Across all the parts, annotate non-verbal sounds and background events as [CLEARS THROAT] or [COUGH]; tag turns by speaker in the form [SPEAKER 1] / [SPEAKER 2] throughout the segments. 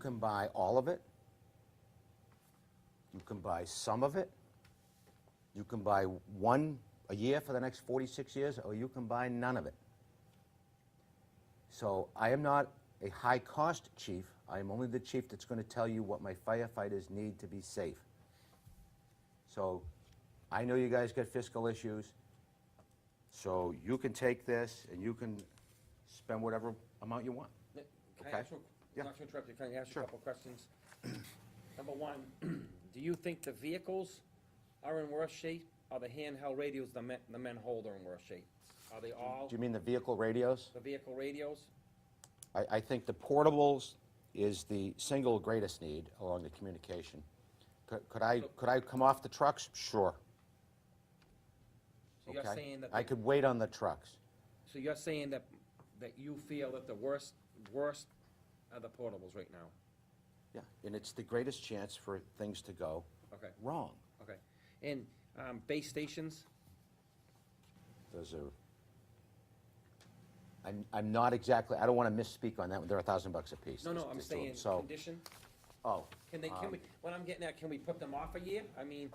[SPEAKER 1] can buy all of it. You can buy some of it. You can buy one a year for the next 46 years, or you can buy none of it. So I am not a high-cost chief. I am only the chief that's going to tell you what my firefighters need to be safe. So I know you guys got fiscal issues, so you can take this and you can spend whatever amount you want.
[SPEAKER 2] Nick, Can
[SPEAKER 1] Okay.
[SPEAKER 2] I ask you,
[SPEAKER 1] Yeah.
[SPEAKER 2] not to interrupt you, can I ask you
[SPEAKER 1] Sure.
[SPEAKER 2] a couple of questions? [CLEARS THROAT] Number one, [CLEARS THROAT] do you think the vehicles are in worse shape? Are the handheld radios the men, the men hold are in worse shape? Are they all
[SPEAKER 1] Do you mean the vehicle radios?
[SPEAKER 2] the vehicle radios?
[SPEAKER 1] I, I think the portables is the single greatest need along the communication. Could, could I, could I come off the trucks? Sure.
[SPEAKER 2] So you're
[SPEAKER 1] Okay.
[SPEAKER 2] saying that,
[SPEAKER 1] I
[SPEAKER 2] the-
[SPEAKER 1] could wait on the trucks.
[SPEAKER 2] so you're saying that, that you feel that the worst, worst are the portables right now?
[SPEAKER 1] Yeah, and it's the greatest chance for things to go
[SPEAKER 2] Okay,
[SPEAKER 1] wrong.
[SPEAKER 2] okay. And, um, base stations?
[SPEAKER 1] Those are, I'm, I'm not exactly, I don't want to misspeak on that one. They're a thousand bucks a piece.
[SPEAKER 2] No, no,
[SPEAKER 1] Just-
[SPEAKER 2] I'm
[SPEAKER 1] just do 'em.
[SPEAKER 2] saying
[SPEAKER 1] So,
[SPEAKER 2] condition?
[SPEAKER 1] oh,
[SPEAKER 2] Can they, can we, what I'm getting at, can we put them off a year? I mean,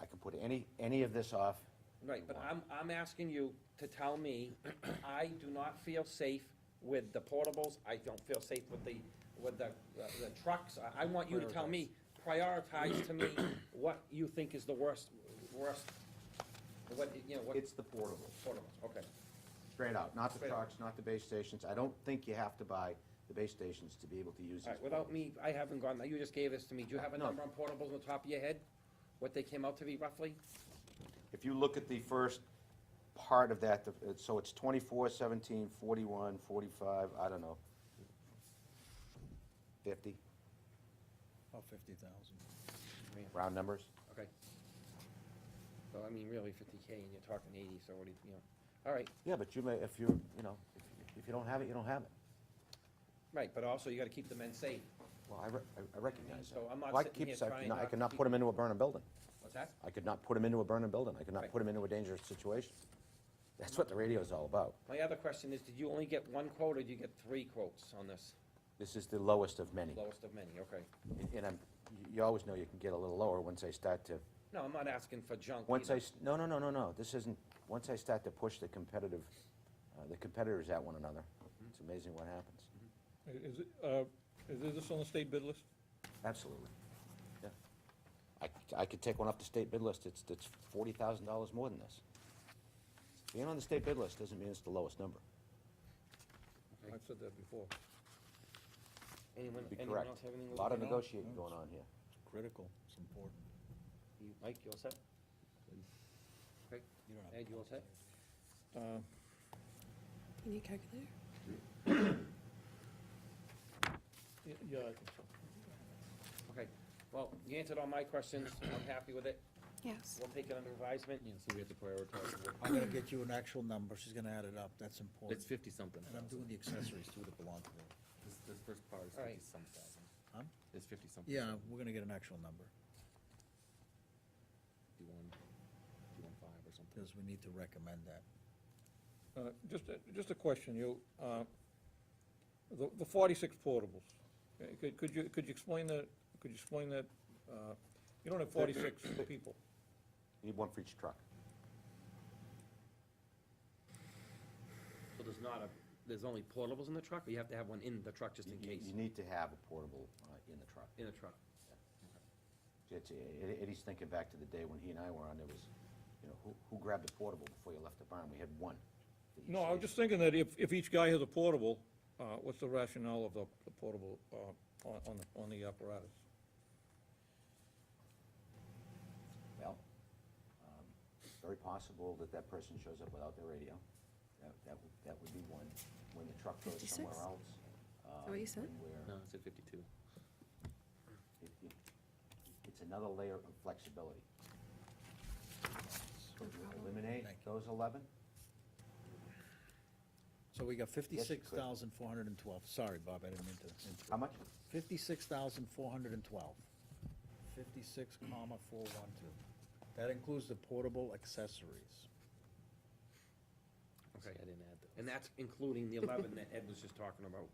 [SPEAKER 1] I can put any, any of this off.
[SPEAKER 2] Right, but I'm, I'm asking you to tell me, [CLEARS THROAT] I do not feel safe with the portables, I don't feel safe with the, with the, uh, the trucks. I, I want you to tell me, prioritize to me what you think is the worst, worst, what, you know, what
[SPEAKER 1] It's the portable.
[SPEAKER 2] portables, okay.
[SPEAKER 1] Straight out, not the
[SPEAKER 2] Straight out.
[SPEAKER 1] trucks, not the base stations. I don't think you have to buy the base stations to be able to use these.
[SPEAKER 2] All right, without me, I haven't gone, you just gave this to me, do you have a
[SPEAKER 1] No.
[SPEAKER 2] number on portables on the top of your head? What they came out to be roughly?
[SPEAKER 1] If you look at the first part of that, the- it's- so it's 24, 17, 41, 45, I don't know, 50,
[SPEAKER 3] About fifty thousand.
[SPEAKER 1] round numbers.
[SPEAKER 2] Okay. So, I mean, really fifty K and you're talking eighty, so what do you, you know, all right.
[SPEAKER 1] Yeah, but you may, if you, you know, if- if you don't have it, you don't have it.
[SPEAKER 2] Right, but also you gotta keep the men safe.
[SPEAKER 1] Well, I re- I- I recognize that.
[SPEAKER 2] So I'm not
[SPEAKER 1] Well, I
[SPEAKER 2] sitting
[SPEAKER 1] keep
[SPEAKER 2] here
[SPEAKER 1] saying I
[SPEAKER 2] trying
[SPEAKER 1] could not- I could
[SPEAKER 2] not to
[SPEAKER 1] not
[SPEAKER 2] keep-
[SPEAKER 1] put them into a burning building.
[SPEAKER 2] What's that?
[SPEAKER 1] I could not put them into a burning building. I could not
[SPEAKER 2] Right.
[SPEAKER 1] put them into a dangerous situation. That's what the radio is all about.
[SPEAKER 2] My other question is, did you only get one quote, or did you get three quotes on this?
[SPEAKER 1] This is the lowest of many.
[SPEAKER 2] Lowest of many, okay.
[SPEAKER 1] And- And I'm, you always know you can get a little lower once I start to
[SPEAKER 2] No, I'm not asking for junk
[SPEAKER 1] Once I,
[SPEAKER 2] either.
[SPEAKER 1] s- no, no, no, no, no, this isn't, once I start to push the competitive, uh, the competitors at one another, it's amazing what happens.
[SPEAKER 3] Is, it, uh, is this on the state bid list?
[SPEAKER 1] Absolutely, yeah. I, c- I could take one off the state bid list, it's, it's forty thousand dollars more than this. Being on the state bid list doesn't mean it's the lowest number.
[SPEAKER 3] I've said that before.
[SPEAKER 2] Anyone,
[SPEAKER 1] You'd be
[SPEAKER 2] anyone
[SPEAKER 1] correct.
[SPEAKER 2] else have anything?
[SPEAKER 1] A
[SPEAKER 2] we're
[SPEAKER 1] lot of
[SPEAKER 2] looking at?
[SPEAKER 1] negotiating going on here.
[SPEAKER 3] Critical, it's important.
[SPEAKER 2] You- Mike, you all set? Okay,
[SPEAKER 3] You don't have
[SPEAKER 2] Ed, you all set?
[SPEAKER 4] Uh,
[SPEAKER 5] You need a calculator?
[SPEAKER 3] Y- Yeah, I think so.
[SPEAKER 2] Okay, well, you answered all my questions, I'm happy with it,
[SPEAKER 5] Yes.
[SPEAKER 2] we'll take it under advisement.
[SPEAKER 6] Yeah, so we have to prioritize. what-
[SPEAKER 3] I'm gonna get you an actual number, she's gonna add it up, that's important.
[SPEAKER 6] It's fifty something
[SPEAKER 3] And I'm
[SPEAKER 6] thousand.
[SPEAKER 3] doing the accessories too that belong to them.
[SPEAKER 6] This, this first part is
[SPEAKER 2] All right.
[SPEAKER 6] fifty some thousand.
[SPEAKER 3] Huh?
[SPEAKER 6] It's fifty something.
[SPEAKER 3] Yeah, we're gonna get an actual number,
[SPEAKER 6] Fifty-one, fifty-one five or something.
[SPEAKER 3] because we need to recommend that.
[SPEAKER 4] Uh, Just, a- just a question, you, uh, the the 46 portables, uh, could could you, could you explain that, could you explain that, uh, you don't have 46 people,
[SPEAKER 1] You Need one for each truck.
[SPEAKER 2] So there's not a, there's only portables in the truck, or you have to have one in the truck just
[SPEAKER 1] You-
[SPEAKER 2] in
[SPEAKER 1] You,
[SPEAKER 2] case,
[SPEAKER 1] you need to have a portable, uh, in the truck.
[SPEAKER 2] in the truck?
[SPEAKER 1] It's, it- Eddie's thinking back to the day when he and I were on, there was, you know, who, who grabbed the portable before you left the barn? We had one. for each
[SPEAKER 4] No, I was
[SPEAKER 1] station.
[SPEAKER 4] just thinking that if, if each guy has a portable, uh, what's the rationale of the the portable uh, on, on the- on the apparatus?
[SPEAKER 1] Well, um, it's very possible that that person shows up without their radio. That, that would, that would be one. When the truck goes
[SPEAKER 5] 56?
[SPEAKER 1] somewhere else.
[SPEAKER 5] that what
[SPEAKER 1] um,
[SPEAKER 5] you said?
[SPEAKER 1] and where
[SPEAKER 6] No, it's at fifty-two.
[SPEAKER 1] it- it- It's another layer of flexibility. Could you eliminate
[SPEAKER 3] Thank you.
[SPEAKER 1] those eleven?
[SPEAKER 3] So we got fifty-six thousand four hundred and twelve, sorry, Bob, I didn't mean to interrupt.
[SPEAKER 1] How much?
[SPEAKER 3] Fifty-six thousand four hundred and twelve. Fifty-six comma four one two. That includes the portable accessories.
[SPEAKER 2] Okay.
[SPEAKER 6] Actually, I didn't add those.
[SPEAKER 2] And that's including the eleven that Ed was just talking about.